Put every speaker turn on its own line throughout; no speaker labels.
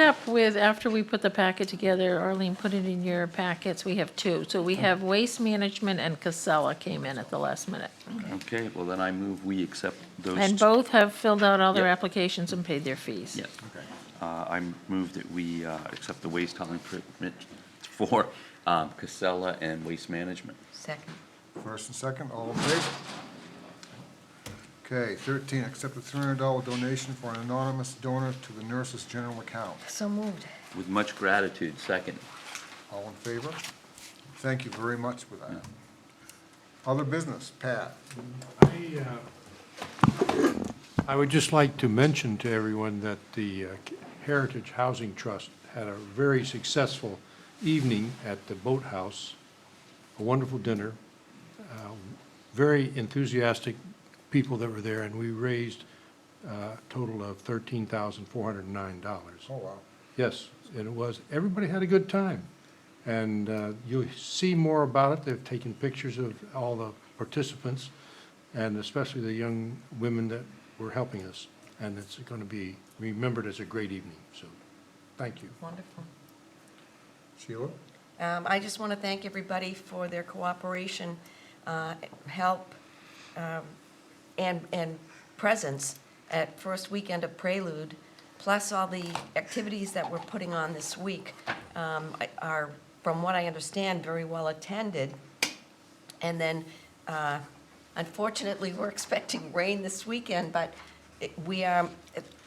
up with, after we put the packet together, Arlene, put it in your packets, we have two. So we have Waste Management and Casella came in at the last minute.
Okay, well, then I move we accept those.
And both have filled out all their
Yep.
applications and paid their fees.
Yeah. Uh, I move that we uh, accept the waste hauling permit for um, Casella and Waste Management.
Second.
First and second, all in favor? Okay, thirteen, accept a three hundred dollar donation for an anonymous donor to the nurses' general account.
So moved.
With much gratitude, second.
All in favor? Thank you very much for that. Other business, Pat?
I, uh, I would just like to mention to everyone that the uh, Heritage Housing Trust had a very successful evening at the Boathouse, a wonderful dinner, uh, very enthusiastic people that were there, and we raised uh, a total of $13,409.
Oh, wow.
Yes, and it was, everybody had a good time. And uh, you'll see more about it, they've taken pictures of all the participants, and especially the young women that were helping us. And it's going to be remembered as a great evening, so, thank you.
Wonderful.
Sheila?
Um, I just want to thank everybody for their cooperation, uh, help, um, and, and presence at first weekend of Prelude, plus all the activities that we're putting on this week um, are, from what I understand, very well attended. And then uh, unfortunately, we're expecting rain this weekend, but it- we are,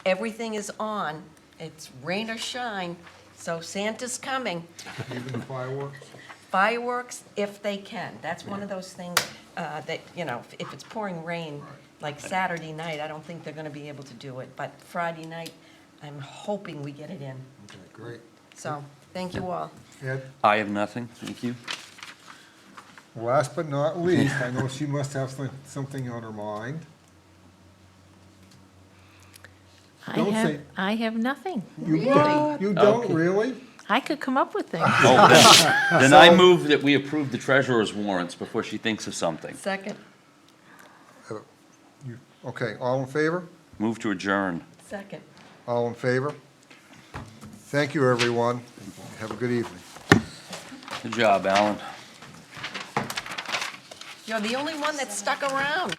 everything is on. It's rain or shine, so Santa's coming
Even the fireworks?
fireworks if they can. That's one of those things uh, that, you know, if- if it's pouring rain, like Saturday night, I don't think they're going to be able to do it. But Friday night, I'm hoping we get it in.
Okay, great.
So, thank you all.
Ed,
I have nothing, thank you.
last but not least, I know she must have some- something on her mind.
I
Don't
have,
say-
I have nothing.
You don't- You don't,
Okay.
really?
I could come up with things.
Oh, then- Then I move that we approve the treasurer's warrants before she thinks of something.
Second.
You- Okay, all in favor?
Move to adjourn.
Second.
All in favor? Thank you, everyone. Have a good evening.
Good job, Alan.
You're the only one that stuck around.